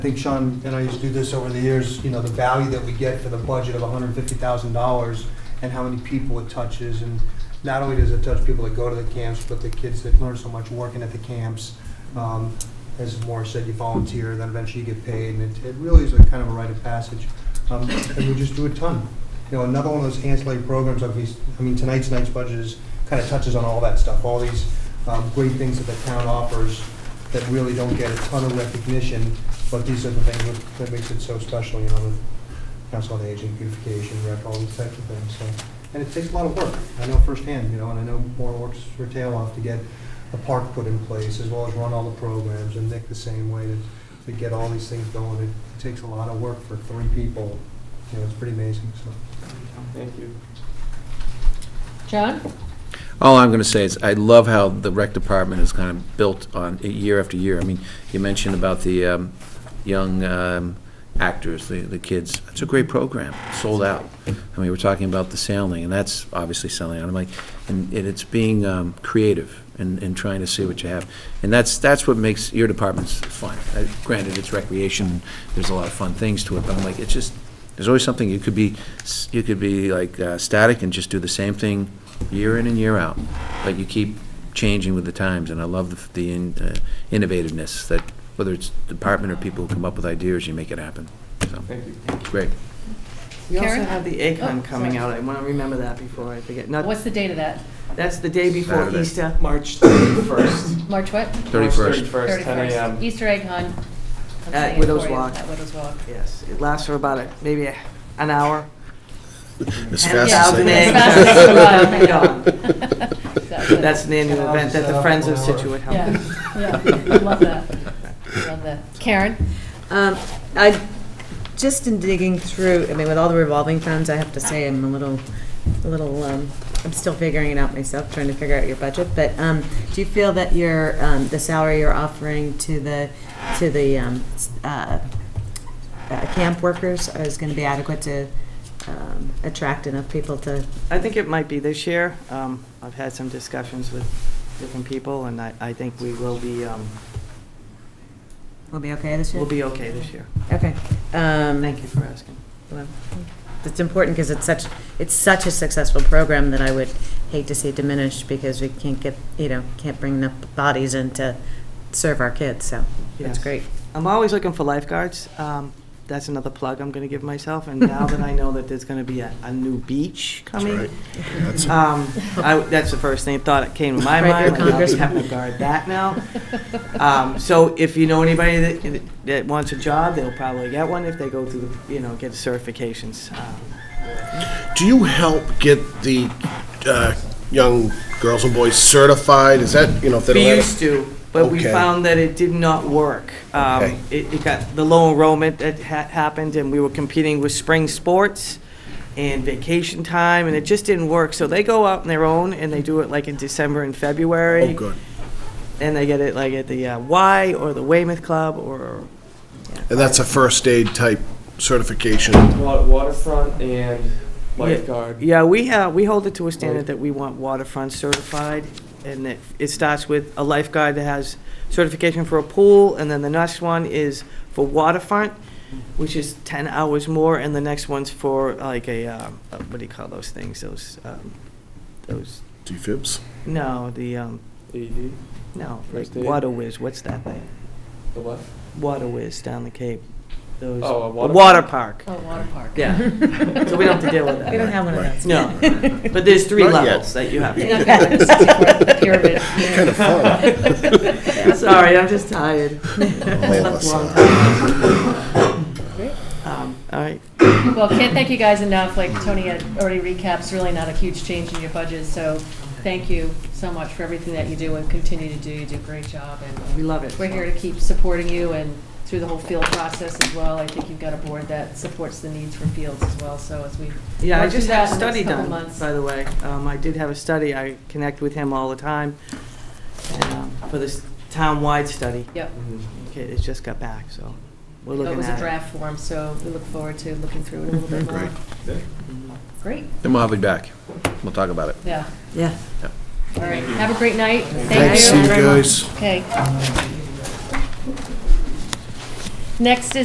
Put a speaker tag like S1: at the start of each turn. S1: I think Sean and I used to do this over the years, you know, the value that we get for the budget of $150,000 and how many people it touches. And not only does it touch people that go to the camps, but the kids that learn so much working at the camps. Um, As Morris said, you volunteer, then eventually you get paid, and it it really is a kind of a rite of passage. Um, And we just do a ton. You know, another one of those ancillary programs, like these, I mean, tonight's night's budget is, kind of touches on all that stuff, all these um, great things that the town offers that really don't get a ton of recognition, but these are the things that- that makes it so special, you know, the council on aging, beautification, rec, all these types of things, so. And it takes a lot of work, I know firsthand, you know, and I know Maura works her tail off to get a park put in place, as well as run all the programs, and Nick the same way, to, to get all these things going. It takes a lot of work for three people, you know, it's pretty amazing, so.
S2: Thank you.
S3: John?
S4: All I'm going to say is, I love how the rec department is kind of built on, uh, year after year. I mean, you mentioned about the um, young um, actors, the the kids. It's a great program, sold out. I mean, we're talking about the sailing, and that's obviously selling out. I'm like, and and it's being um, creative and and trying to see what you have. And that's, that's what makes your departments fun. Uh, Granted, it's recreation, there's a lot of fun things to it, but I'm like, it's just, there's always something, you could be, s- you could be like uh, static and just do the same thing year in and year out, but you keep changing with the times, and I love the- the in- uh, innovativeness that, whether it's department or people who come up with ideas, you make it happen. So,
S2: Thank you.
S4: great.
S5: We also
S3: Karen?
S5: have the
S3: Oh,
S5: ACON coming
S3: sorry.
S5: out. I want to remember that before I forget. Not,
S3: What's the date of that?
S5: that's the day before
S4: Saturday.
S5: Easter.
S2: March 31st.
S3: March what?
S2: March
S4: 31st.
S2: 31st, 10
S3: 31st.
S2: a.m.
S3: Easter egg hunt. I'm
S5: At
S3: saying it
S5: Widows
S3: for you,
S5: Walk.
S3: At Widows Walk.
S5: Yes, it lasts for about a, maybe a- an hour.
S4: As
S5: And
S4: fast as
S5: thousand
S4: they-
S5: eggs.
S3: Fast as they come
S5: Right on.
S3: Exactly.
S5: That's an annual
S1: Thousand
S5: event that the
S1: stuff,
S5: Friends of
S1: one hour.
S5: Situate help.
S3: Yeah, yeah, I love that, I love that. Karen?
S6: Um, I, just in digging through, I mean, with all the revolving funds, I have to say I'm a little, a little, um, I'm still figuring it out myself, trying to figure out your budget, but, um, do you feel that your, um, the salary you're offering to the, to the, um, s- uh, uh, camp workers is gonna be adequate to, um, attract enough people to,
S5: I think it might be this year. Um, I've had some discussions with different people, and I, I think we will be, um,
S6: will be okay this year?
S5: we'll be okay this year.
S6: Okay, um.
S5: Thank you for asking.
S6: Well, It's important because it's such, it's such a successful program that I would hate to see it diminish because we can't get, you know, can't bring enough bodies in to serve our kids, so
S5: Yes.
S6: that's great.
S5: I'm always looking for lifeguards. Um, That's another plug I'm going to give myself, and now that I know that there's going to be a, a new beach coming, um, I- that's the first thing, thought that came to my
S6: Right, your
S5: mind, like, I'll be
S6: congressman.
S5: having to guard that now. Um, So if you know anybody that, that wants a job, they'll probably get one if they go through, the you know, get certifications. Um,
S7: Do you help get the uh, young girls and boys certified? Is that, you know, if they don't
S5: We
S7: have-
S5: used to, but we
S7: Okay.
S5: found that it did not work. Um,
S7: Okay.
S5: It, it got, the low enrollment that ha- happened, and we were competing with spring sports and vacation time, and it just didn't work. So they go out on their own, and they do it like in December and February.
S7: Oh, good.
S5: And they get it like at the uh, Y or the Weymouth Club or,
S7: And that's a first aid type certification.
S2: Wa- Waterfront and lifeguard.
S5: yeah, we have, we hold it to a standard that we want waterfront certified, and it, it starts with a lifeguard that has certification for a pool, and then the next one is for waterfront, which is 10 hours more, and the next one's for like a, um, uh, what do you call those things, those, um, those,
S7: DFibs.
S5: no, the, um,
S2: AED,
S5: no, like
S2: First aid?
S5: Water Whiz, what's that thing?
S2: the what?
S5: Water Whiz down the Cape, those.
S2: Oh, a
S5: the
S2: water
S5: Water park,
S3: Oh, water park.
S5: yeah, so we don't have to deal with that.
S6: We don't have one of those.
S5: No, but there's three
S7: Not yet.
S5: levels that you have to.
S3: You're not gonna like stick with the pyramid.
S7: Kind of fun. Oh,
S5: Sorry, I'm just tired.
S7: All of
S5: Slept a
S7: us
S5: long
S7: are.
S3: Great.
S5: time. Um, All right,
S3: Well, can't thank you guys enough, like Tony had already recaps, really not a huge change in your budget, so thank you so much for everything that you do and continue to do, you do a great job, and
S5: we love it.
S3: We're here to keep supporting you and through the whole field process as well. I think you've got a board that supports the needs for fields as well, so as we.
S5: Yeah, I
S3: work through
S5: just
S3: that
S5: had a
S3: in the next
S5: study
S3: couple
S5: done,
S3: months.
S5: by the way. Um, I did have a study, I connect with him all the time, and, um, for this town-wide study. Mm-hmm.
S3: Yep,
S5: Okay, It just got back, so we're
S3: that
S5: looking
S3: was a
S5: at it.
S3: draft form, so we look forward to looking through it a little bit more.
S7: Great.
S3: Mm-hmm. Great,
S4: Then we'll have you back. We'll talk about it.
S3: yeah,
S6: Yeah.
S3: all right. Have a great night. Thank you.
S7: Thanks, see you guys.
S3: Okay. Next is